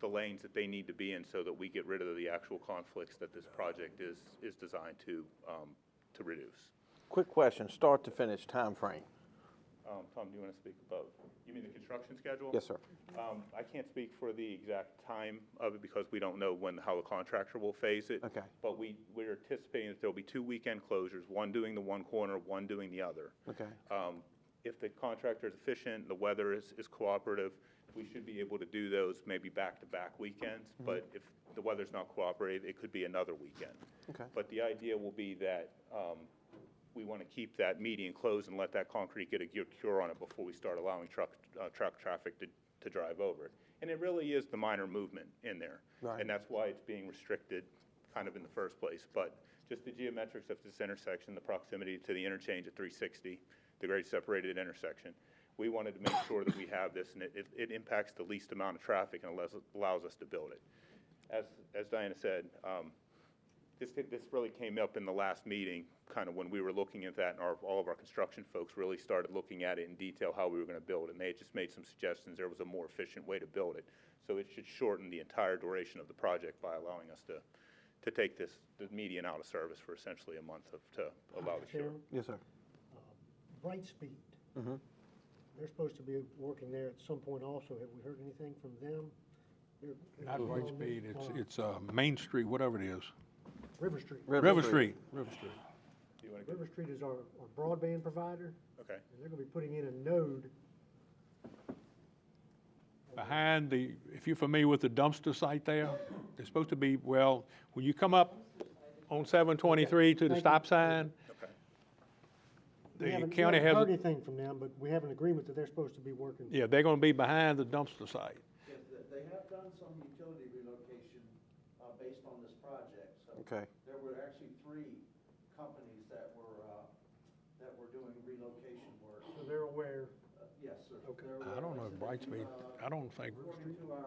the lanes that they need to be in so that we get rid of the actual conflicts that this project is, is designed to, um, to reduce. Quick question, start to finish time frame. Um, Tom, do you want to speak above? You mean the construction schedule? Yes, sir. Um, I can't speak for the exact time of it because we don't know when, how the contractor will phase it. Okay. But we, we're anticipating that there'll be two weekend closures, one doing the one corner, one doing the other. Okay. Um, If the contractor is efficient, the weather is, is cooperative, we should be able to do those maybe back-to-back weekends. But if the weather's not cooperative, it could be another weekend. Okay. But the idea will be that um, we want to keep that median closed and let that concrete get a gu- cure on it before we start allowing truck, uh, truck traffic to, to drive over it. And it really is the minor movement in there. Right. And that's why it's being restricted kind of in the first place. But just the geometrics of this intersection, the proximity to the interchange at 360, the grade separated intersection, we wanted to make sure that we have this and it, it- it impacts the least amount of traffic and allows, allows us to build it. As, as Diana said, um, this, this really came up in the last meeting, kind of when we were looking at that, and our, all of our construction folks really started looking at it in detail, how we were gonna build it, and they had just made some suggestions, there was a more efficient way to build it. So it should shorten the entire duration of the project by allowing us to, to take this, the median out of service for essentially a month of, to allow the cure. Yes, sir. Brightspeed. They're supposed to be working there at some point also. Have we heard anything from them? They're- they're Not on Brightspeed, it's, on it's uh, Main Street, whatever it is. River Street. River Street, River Street. Do you wanna, River Street is our our broadband provider, okay, and they're gonna be putting in a node. Behind the, if you're familiar with the dumpster site there, it's supposed to be, well, when you come up on 723 to the stop sign, okay. We the haven't- we county haven't has, Heard anything from them, but we have an agreement that they're supposed to be working. yeah, they're going to be behind the dumpster site. Yes, th- they have done some utility relocation uh, based on this project, so. Okay. There were actually three companies that were, uh, that were doing relocation work. So they're aware. Uh, Yes, sir. Okay. There I were- don't know if like I said, Brightspeed, uh, I don't think, According to our.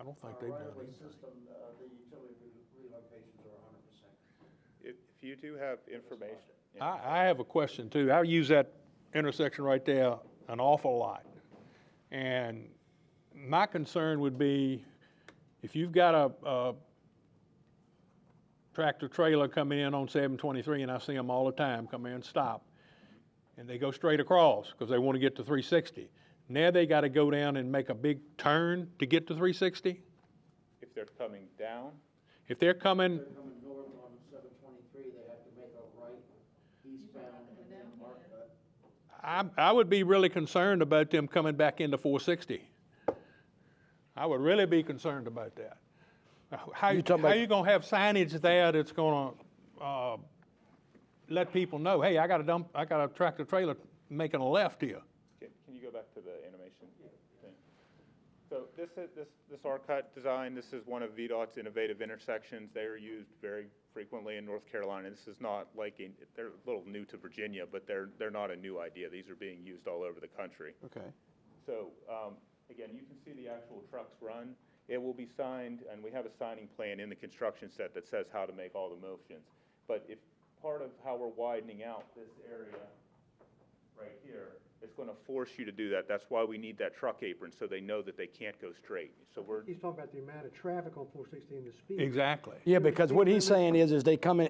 I don't think our they've done right-of-way anything. System, uh, the utility re- relocations are hundred percent. If, if you do have information, yeah, I, I have a question too. I use that intersection right there an awful lot. And my concern would be if you've got a, a tractor trailer coming in on seven twenty-three and I see them all the time come in, stop. And they go straight across because they want to get to three sixty. Now they got to go down and make a big turn to get to three sixty? if they're coming down, If they're coming, They're coming north on seven twenty-three, they have to make a right eastbound and then mark, uh, I, I would be really concerned about them coming back into 460. I would really be concerned about that. How, You talking how about- you gonna have signage there that's gonna, uh, let people know, hey, I got a dump, I got a tractor trailer making a left here? Can, can you go back to the animation thing? So this is, this, this R-Cut design, this is one of VDOT's innovative intersections. They are used very frequently in North Carolina. This is not like, in- they're a little new to Virginia, but they're, they're not a new idea. These are being used all over the country. Okay. So, um, again, you can see the actual trucks run. It will be signed, and we have a signing plan in the construction set that says how to make all the motions. But if, part of how we're widening out this area right here, it's gonna force you to do that. That's why we need that truck apron, so they know that they can't go straight. So we're, He's talking about the amount of traffic on four sixty and the speed. Exactly. Yeah, because what he's saying is, is they come in,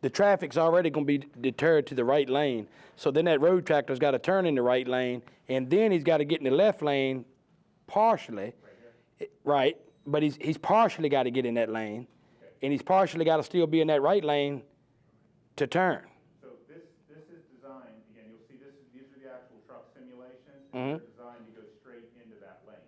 the traffic's already gonna be deterred to the right lane. So then that road tractor's gotta turn in the right lane, and then he's gotta get in the left lane partially. Eh, Right, but he's, he's partially gotta get in that lane, and he's partially gotta still be in that right lane to turn. So this, this is designed, again, you'll see this, is these are the actual truck simulations, and they're designed to go straight into that lane,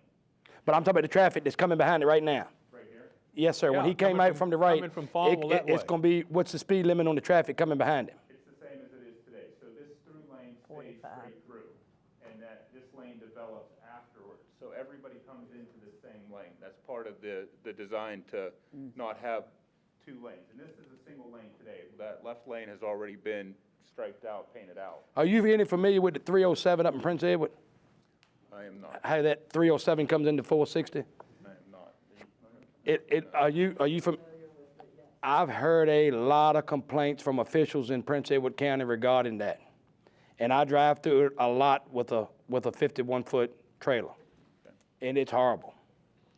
But I'm talking about the traffic that's coming behind it right now. right here. Yes, sir, when Yeah, he came coming out from- from the right, coming from it- Farmville it- that it's way. gonna be, what's the speed limit on the traffic coming behind him? It's the same as it is today, so this through lane stays straight through, and that this lane develops afterwards. So everybody comes into the same lane, that's part of the, the design to not have two lanes. And this is a single lane today, that left lane has already been striped out, painted out. Are you really familiar with the three oh seven up in Prince Edward? I am not, how that 307 comes into 460? I am not. It, it, are you, are you from, I've heard a lot of complaints from officials in Prince Edward County regarding that. And I drive through it a lot with a, with a 51-foot trailer, and it's horrible.